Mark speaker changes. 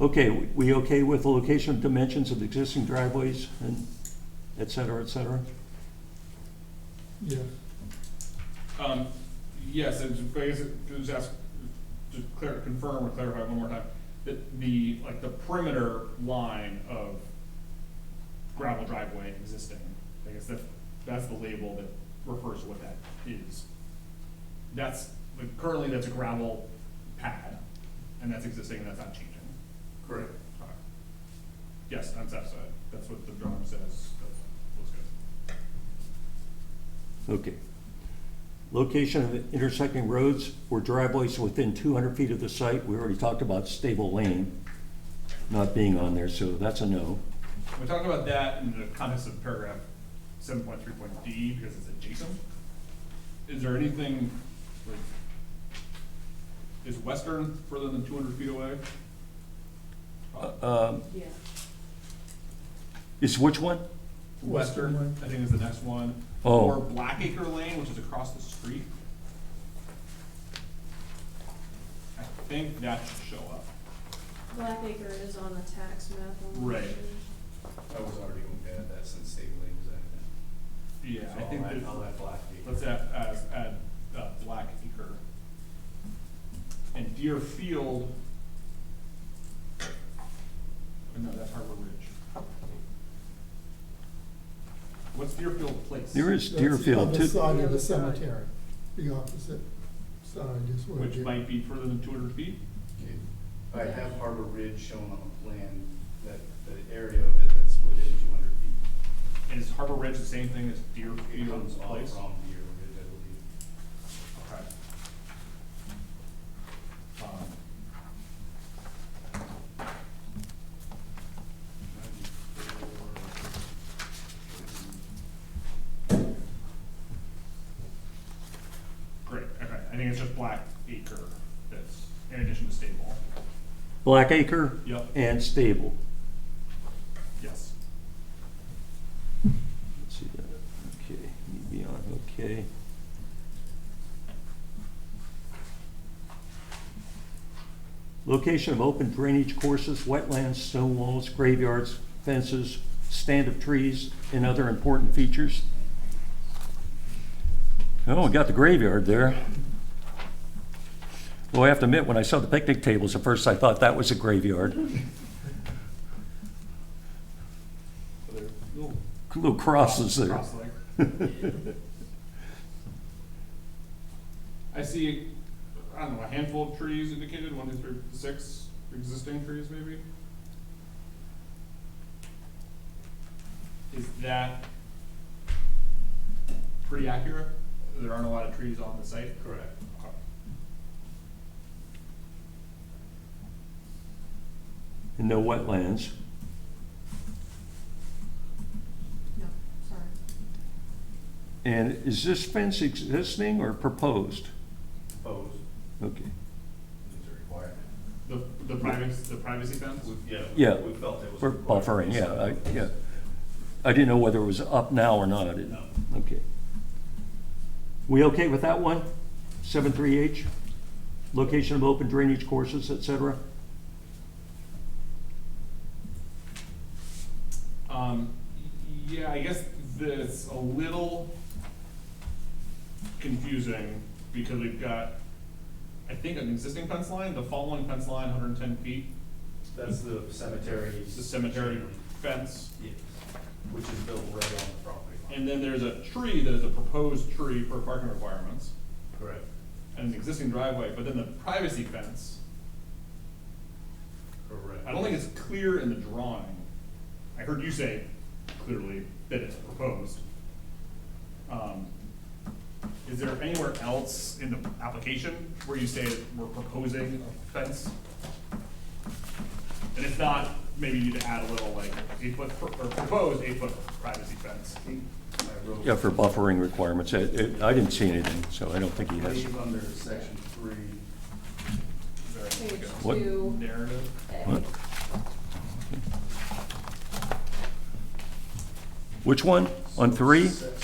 Speaker 1: Okay, we- we okay with the location of dimensions of existing driveways and et cetera, et cetera?
Speaker 2: Yeah,
Speaker 3: Um, yes, and just- I guess, it- just ask, to clear, confirm or clarify one more time, that the, like, the perimeter line of gravel driveway existing, I guess that, that's the label that refers to what that is. That's, like, currently that's a gravel pad, and that's existing, and that's not changing.
Speaker 4: Correct.
Speaker 3: Okay. Yes, on south side, that's what the drawing says, that looks good.
Speaker 1: Okay. Location of intersecting roads or driveways within two hundred feet of the site, we already talked about stable lane not being on there, so that's a no.
Speaker 3: We talked about that in the context of paragraph seven point three point D, because it's adjacent. Is there anything, like, is Western further than two hundred feet away?
Speaker 1: Um,
Speaker 5: Yeah.
Speaker 1: Is which one?
Speaker 3: Western, I think is the next one.
Speaker 1: Oh.
Speaker 3: Or Blackacre Lane, which is across the street. I think that should show up.
Speaker 5: Blackacre is on the tax map on. the
Speaker 3: Right.
Speaker 5: page.
Speaker 4: I was already gonna add that since State Lane was added.
Speaker 3: Yeah,
Speaker 4: So
Speaker 3: I
Speaker 4: I'll
Speaker 3: think
Speaker 4: add-
Speaker 3: that,
Speaker 4: I'll add Black
Speaker 3: let's
Speaker 4: Acre.
Speaker 3: add, add, add, uh, Blackacre. And Deerfield. Oh, No, that's Harbor Ridge. What's Deerfield Place?
Speaker 1: There is
Speaker 2: that's on
Speaker 1: Deerfield
Speaker 2: the
Speaker 1: too.
Speaker 2: side
Speaker 5: The
Speaker 2: of
Speaker 5: other
Speaker 2: the
Speaker 5: side.
Speaker 2: cemetery, the opposite side is where.
Speaker 3: Which
Speaker 2: it-
Speaker 3: might be further than two hundred feet?
Speaker 4: Okay. I have Harbor Ridge shown on the plan, that, the area of it that's within two hundred feet.
Speaker 3: And is Harbor Ridge the same thing as
Speaker 4: It comes
Speaker 3: Deerfield
Speaker 4: all
Speaker 3: Place?
Speaker 4: from Deer Ridge, I believe.
Speaker 3: Okay. Um, Great, okay, I think it's just Black Acre that's in addition to Stable.
Speaker 1: Blackacre
Speaker 3: Yep,
Speaker 1: and stable.
Speaker 3: yes.
Speaker 1: Let's see that, okay, need to be on, okay. Location of open drainage courses, wetlands, stone walls, graveyards, fences, stand of trees, and other important features. Oh, we got the graveyard there. Well, I have to admit, when I saw the picnic tables, at first I thought that was a graveyard.
Speaker 3: Little
Speaker 1: Little crosses there.
Speaker 3: Cross leg. I see, I don't know, a handful of trees indicated, one, two, three, six existing trees maybe? Is that pretty accurate? There aren't a lot of trees on the site? Correct.
Speaker 1: And no wetlands.
Speaker 5: No, sorry.
Speaker 1: And is this fence existing or proposed?
Speaker 4: Proposed
Speaker 1: Okay,
Speaker 4: is a requirement.
Speaker 3: The, the privacy, the privacy fence?
Speaker 4: We- Yeah. we-
Speaker 1: Yeah,
Speaker 4: We felt it was.
Speaker 1: we're
Speaker 4: required
Speaker 1: buffering,
Speaker 4: based
Speaker 1: yeah,
Speaker 4: on-
Speaker 1: I, yeah. I didn't know whether it was up now or not. It-
Speaker 4: No.
Speaker 1: Okay. We okay with that one? Seven three H? Location of open drainage courses, et cetera?
Speaker 3: Um, yeah, I guess that's a little confusing because we've got, I think, an existing fence line, the following fence line, hundred and ten feet,
Speaker 4: That's the cemetery.
Speaker 3: is the cemetery fence.
Speaker 4: Yes, which is built right on the property line.
Speaker 3: And then there's a tree that is a proposed tree for parking requirements
Speaker 4: Correct,
Speaker 3: and an existing driveway, but then the privacy fence,
Speaker 4: correct.
Speaker 3: I don't think it's clear in the drawing. I heard you say clearly that it's proposed. Um, Is there anywhere else in the application where you say that we're proposing a fence? And if not, maybe you need to add a little like eight foot, or proposed eight foot privacy fence.
Speaker 4: I wrote-
Speaker 1: Yeah, for buffering requirements. I, it- I didn't see anything, so I don't think he has.
Speaker 4: Leave under section three,
Speaker 3: Is there any, like,
Speaker 1: What?
Speaker 5: Page
Speaker 3: a
Speaker 5: two.
Speaker 3: narrative?
Speaker 5: A.
Speaker 1: What? Which one? On three?
Speaker 4: Section